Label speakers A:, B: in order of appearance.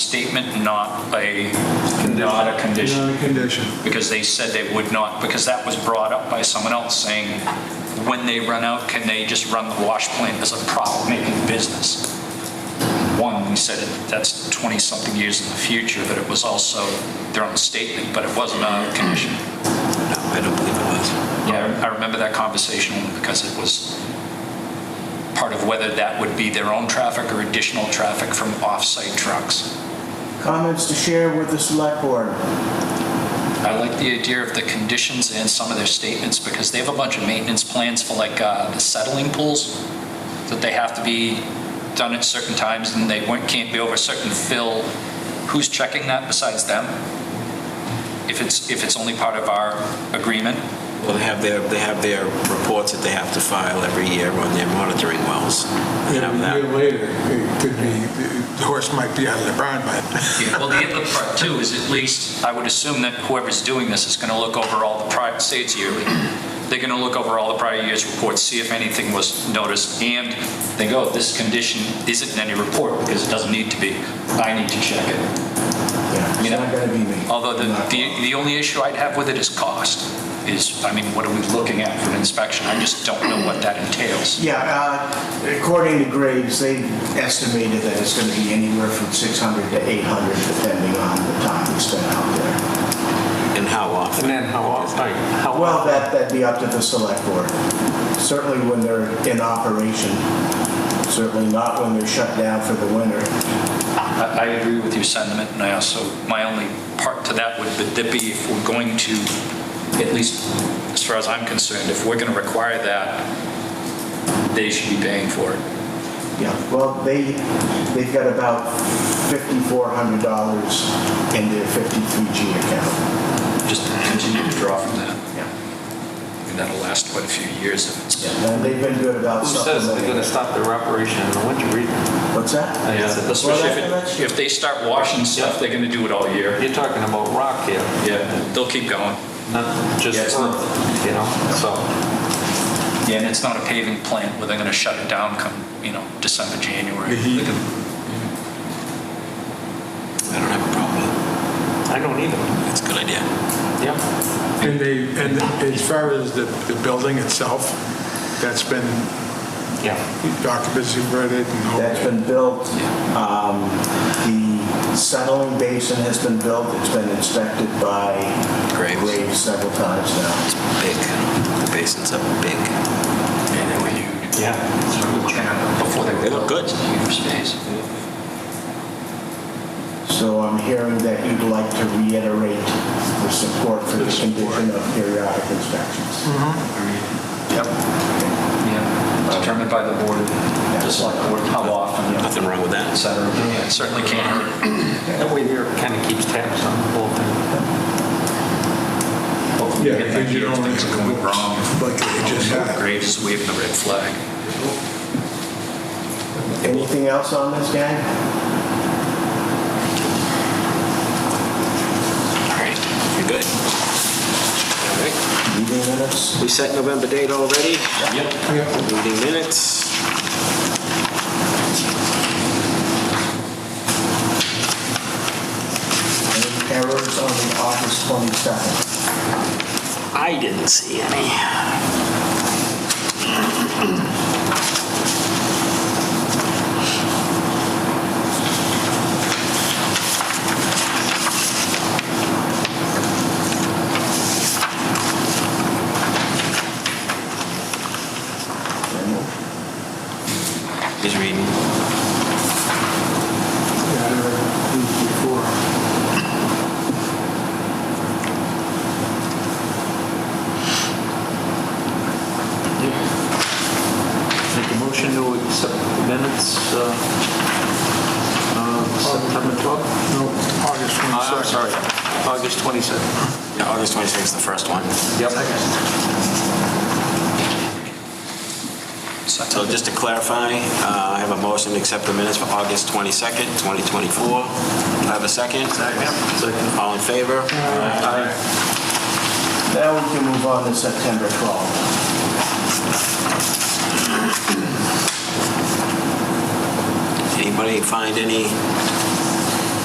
A: statement, not a, not a condition?
B: Condition.
A: Because they said they would not, because that was brought up by someone else saying, when they run out, can they just run the wash plant as a profit-making business? One, we said it- that's 20-something years in the future, but it was also their own statement, but it wasn't a condition.
C: No, I don't believe it was.
A: Yeah, I remember that conversation only because it was part of whether that would be their own traffic or additional traffic from off-site trucks.
D: Comments to share with the select board?
A: I like the idea of the conditions and some of their statements because they have a bunch of maintenance plans for like uh, the settling pools that they have to be done at certain times and they won't- can't be over a certain fill. Who's checking that besides them? If it's, if it's only part of our agreement?
C: Well, they have their, they have their reports that they have to file every year on their monitoring wells. They have
B: A year
C: that.
B: later, it could be, the horse might be out of the barn by then.
A: Yeah, Well, the other part too is at least, I would assume that whoever's doing this is going to look over all the prior, say it's yearly, they're going to look over all the prior year's reports, see if anything was noticed, and they go, this condition isn't in any report because it doesn't need to be. I need to check it.
D: Yeah, it's not gonna be me.
A: Although the,
D: Not-
A: the the only issue I'd have with it is cost, is, I mean, what are we looking at for an inspection? I just don't know what that entails.
D: Yeah, uh, according to Graves, they estimated that it's gonna be anywhere from 600 to 800, depending on the time we spend out there.
C: And how often?
E: And then how often, like, how
D: Well,
E: often?
D: that, that'd be up to the select board. Certainly when they're in operation, certainly not when they're shut down for the winter.
A: I, I agree with your sentiment, and I also, my only part to that would be if we're going to, at least as far as I'm concerned, if we're going to require that, they should be paying for it.
D: Yeah, well, they, they've got about $5,400 in their 53G account.
A: Just continue to draw from that,
D: Yeah.
A: and that'll last quite a few years if it's.
D: And they've been good about
E: Who says they're
D: supplementing.
E: gonna stop their operation in the winter either?
D: What's that?
A: Especially if
D: Well, that's-
A: it- if they start washing stuff, they're going to do it all year.
E: You're talking about rock here,
A: Yeah, they'll keep going.
E: not
A: Yeah,
E: just
A: it's
E: earth, you know, so.
A: Yeah, and it's not a paving plant where they're going to shut it down come, you know, December, January.
B: The heat.
A: They can-
C: I don't have a problem.
E: I don't either.
C: It's a good idea.
E: Yeah.
B: And they, and as far as the, the building itself, that's been
E: Yeah.
B: occupancy rated and all
D: That's been built, um, the settling basin has been built, it's been inspected by
C: Graves.
D: Graves several times now.
C: Big. The basin's up big.
A: Yeah, they were huge.
E: Yeah.
A: Before they were.
C: They look good.
A: Huge space.
D: So I'm hearing that you'd like to reiterate the support Mm-hmm. for the condition of periodic inspections.
A: Yep. Yeah, determined by the board, just like board, how often, et
C: Nothing wrong with that.
A: cetera. Yeah, it Certainly can't hurt.
E: That way there kind of keeps tabs on the whole thing.
A: Hopefully
B: Yeah,
A: we get that
B: because you
A: here if
B: don't
A: things are going wrong.
B: Like it just happened.
A: Graves is waving the red flag.
D: Anything else on this, gang?
C: All right. You're good. All right.
D: Meeting minutes?
C: We set November date already.
A: Yep.
C: Meeting minutes.
D: Any errors on the August 22nd?
C: I didn't see any. He's reading.
B: Yeah, I read these before.
E: Make a motion to accept the minutes, uh, uh, September 12th?
B: No, August 22nd.
E: Uh, I'm sorry, August 27th.
C: Yeah, August 26th is the first one.
E: Yep.
C: So just to clarify, uh, I have a motion to accept the minutes for August 22nd, 2024. Do I have a second? Second. All in favor? Aye.
D: Now we can move on to September 12th.
C: Anybody find any